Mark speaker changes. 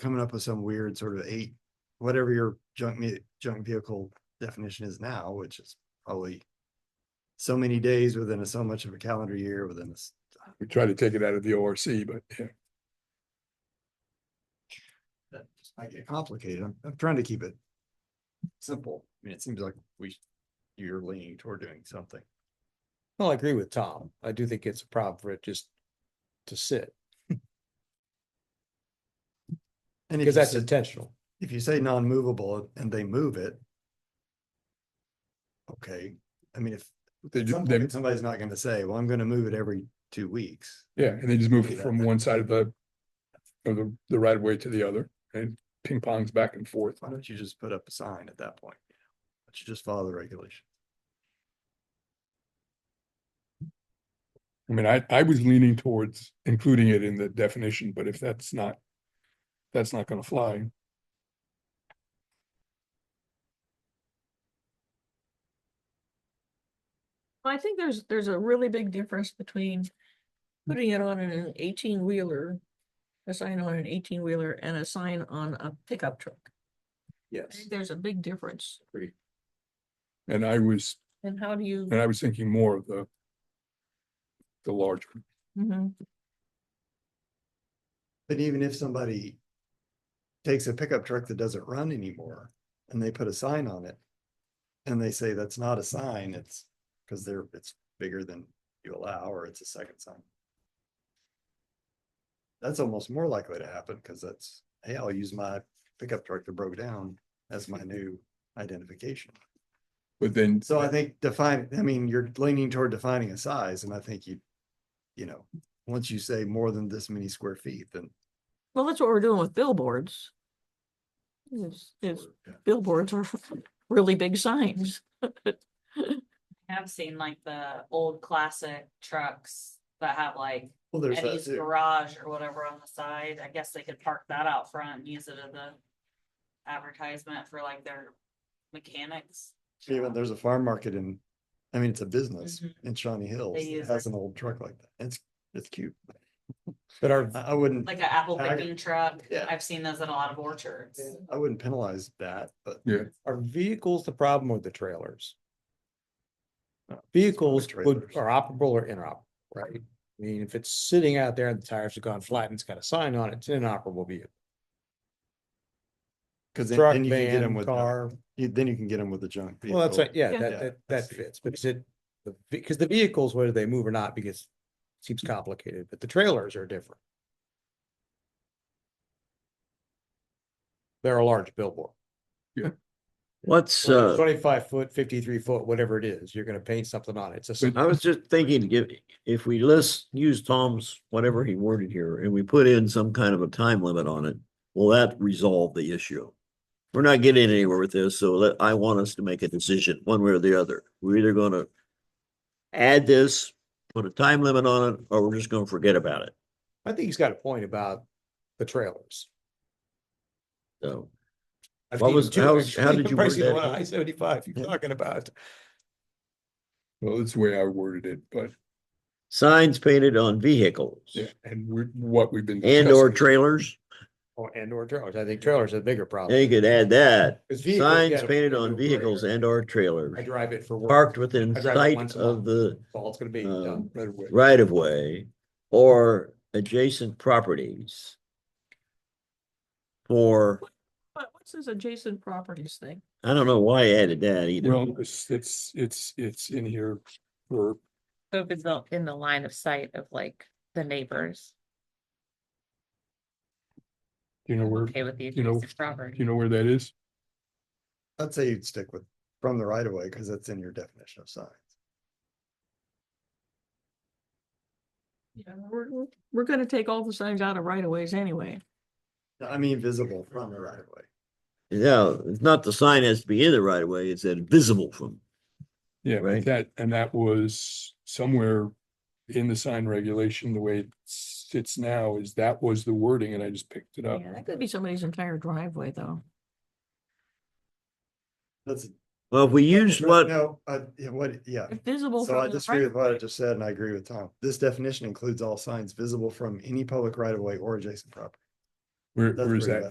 Speaker 1: coming up with some weird sort of eight, whatever your junk me, junk vehicle definition is now, which is probably so many days within a, so much of a calendar year within this.
Speaker 2: We try to take it out of the ORC, but yeah.
Speaker 1: That just might get complicated. I'm, I'm trying to keep it simple. I mean, it seems like we, you're leaning toward doing something.
Speaker 3: Well, I agree with Tom. I do think it's a problem for it just to sit,
Speaker 1: And if
Speaker 3: because
Speaker 1: you
Speaker 3: that's
Speaker 1: say-
Speaker 3: intentional.
Speaker 1: if you say non-movable and they move it. Okay, I mean, if
Speaker 2: They,
Speaker 1: at
Speaker 2: ju-
Speaker 1: some
Speaker 2: they,
Speaker 1: point somebody's not gonna say, well, I'm gonna move it every two weeks.
Speaker 2: yeah, and they just move
Speaker 1: do
Speaker 2: it
Speaker 1: that.
Speaker 2: from one side of the of the, the right of way to the other and ping pongs back and forth.
Speaker 1: Why don't you just put up a sign at that point? Why don't you just follow the regulation?
Speaker 2: I mean, I, I was leaning towards including it in the definition, but if that's not, that's not gonna fly.
Speaker 4: I think there's, there's a really big difference between putting it on an eighteen wheeler, a sign on an eighteen wheeler and a sign on a pickup truck. I
Speaker 3: Yes.
Speaker 4: think There's a big difference.
Speaker 2: And I was,
Speaker 4: And how do you?
Speaker 2: and I was thinking more of the the larger.
Speaker 4: Mhm.
Speaker 1: But even if somebody takes a pickup truck that doesn't run anymore and they put a sign on it. And they say that's not a sign, it's because they're, it's bigger than you allow, or it's a second sign. That's almost more likely to happen because that's, hey, I'll use my pickup truck that broke down as my new identification.
Speaker 2: But then,
Speaker 1: So I think define, I mean, you're leaning toward defining a size and I think you, you know, once you say more than this many square feet, then.
Speaker 4: Well, that's what we're doing with billboards. Is, is billboards are really big signs.
Speaker 5: I have seen like the old classic trucks that have like
Speaker 1: Well, there's that
Speaker 5: Eddie's
Speaker 1: too.
Speaker 5: garage or whatever on the side. I guess they could park that out front and use it as a advertisement for like their mechanics.
Speaker 1: Even
Speaker 5: shop.
Speaker 1: there's a farm market in, I mean, it's a business
Speaker 5: Mhm.
Speaker 1: in Shawnee Hills.
Speaker 5: They
Speaker 1: that
Speaker 5: use
Speaker 1: has
Speaker 5: it.
Speaker 1: an old truck like that. It's, it's cute.
Speaker 3: But our,
Speaker 1: I, I wouldn't,
Speaker 5: Like an apple
Speaker 1: I-
Speaker 5: picking truck.
Speaker 1: yeah.
Speaker 5: I've seen those in a lot of orchards.
Speaker 1: I wouldn't penalize that, but
Speaker 3: are vehicles the problem or the trailers?
Speaker 1: No,
Speaker 3: Vehicles
Speaker 1: it's probably
Speaker 3: would,
Speaker 1: trailers.
Speaker 3: are operable or inoperable, right? I mean, if it's sitting out there and the tires have gone flat and it's got a sign on it, it's an inoperable vehicle.
Speaker 1: because then
Speaker 3: Truck,
Speaker 1: then you can get them
Speaker 3: van,
Speaker 1: with,
Speaker 3: car,
Speaker 1: you- then you can get them with the junk.
Speaker 3: well, that's,
Speaker 1: vehicle.
Speaker 3: right. yeah,
Speaker 4: Yeah.
Speaker 3: that,
Speaker 1: Yeah,
Speaker 3: that,
Speaker 1: that's-
Speaker 3: that fits, but is it, because the vehicles, whether they move or not, because it seems complicated, but the trailers are different. They're a large billboard.
Speaker 6: Let's,
Speaker 3: whether it's
Speaker 6: uh,
Speaker 3: Twenty-five foot, fifty-three foot, whatever it is, you're gonna paint something on it. It's a, sign.
Speaker 6: I was just thinking, if, if we list, use Tom's, whatever he worded here, and we put in some kind of a time limit on it, will that resolve the issue? We're not getting anywhere with this, so let, I want us to make a decision, one way or the other. We're either gonna add this, put a time limit on it, or we're just gonna forget about it,
Speaker 3: I think he's got a point about the trailers.
Speaker 6: so.
Speaker 3: I've
Speaker 6: What
Speaker 3: seen
Speaker 6: was-
Speaker 3: two,
Speaker 6: how-
Speaker 3: actually,
Speaker 6: how did you
Speaker 3: pricing
Speaker 6: word
Speaker 3: the one
Speaker 6: that?
Speaker 3: on I seventy-five
Speaker 1: Yeah.
Speaker 3: you're talking about.
Speaker 2: well, that's the way I worded it, but,
Speaker 6: Signs painted on vehicles
Speaker 2: yeah, and we're, what we've been.
Speaker 6: and or
Speaker 2: discussing.
Speaker 6: trailers,
Speaker 3: Or, Oh, and or trailers. I think trailers are the bigger problem.
Speaker 6: they could add that.
Speaker 3: 'Cause vehicles, you
Speaker 6: Signs
Speaker 3: gotta
Speaker 6: painted
Speaker 3: put it
Speaker 6: on
Speaker 3: over here.
Speaker 6: vehicles and or
Speaker 3: I
Speaker 6: trailers
Speaker 3: drive it for work.
Speaker 6: parked within
Speaker 3: I drive it
Speaker 6: sight
Speaker 3: once a
Speaker 6: of
Speaker 3: month.
Speaker 6: the
Speaker 3: That's all it's gonna be
Speaker 6: uh,
Speaker 3: done.
Speaker 2: Right away.
Speaker 6: right of way or adjacent properties for,
Speaker 4: But what's this adjacent properties thing?
Speaker 6: I don't know why I added that either.
Speaker 2: Well, it's, it's, it's, it's in here for,
Speaker 7: So if it's not in the line of sight of like the neighbors,
Speaker 2: you know, where,
Speaker 7: okay with the
Speaker 2: you know,
Speaker 7: adjacent property.
Speaker 2: you know where that is?
Speaker 1: I'd say you'd stick with from the right of way because that's in your definition of signs.
Speaker 4: Yeah, we're, we're- we're gonna take all the signs out of right of ways anyway.
Speaker 1: I mean, visible from the right of way.
Speaker 6: Yeah, it's not the sign has to be in the right of way, it's that visible from.
Speaker 2: Yeah, but
Speaker 6: Right.
Speaker 2: that, and that was somewhere in the sign regulation, the way it sits now is that was the wording and I just picked it up.
Speaker 4: Yeah, that could be somebody's entire driveway though.
Speaker 1: That's.
Speaker 6: Well, if we use what,
Speaker 1: No, uh, yeah, what, yeah.
Speaker 4: If Visible.
Speaker 1: So I
Speaker 4: from the
Speaker 1: disagree with
Speaker 4: right of
Speaker 1: what I
Speaker 4: way.
Speaker 1: just said and I agree with Tom. This definition includes all signs visible from any public right of way or adjacent property.
Speaker 2: Where,
Speaker 1: That's
Speaker 2: where is
Speaker 1: where
Speaker 2: that?
Speaker 1: that-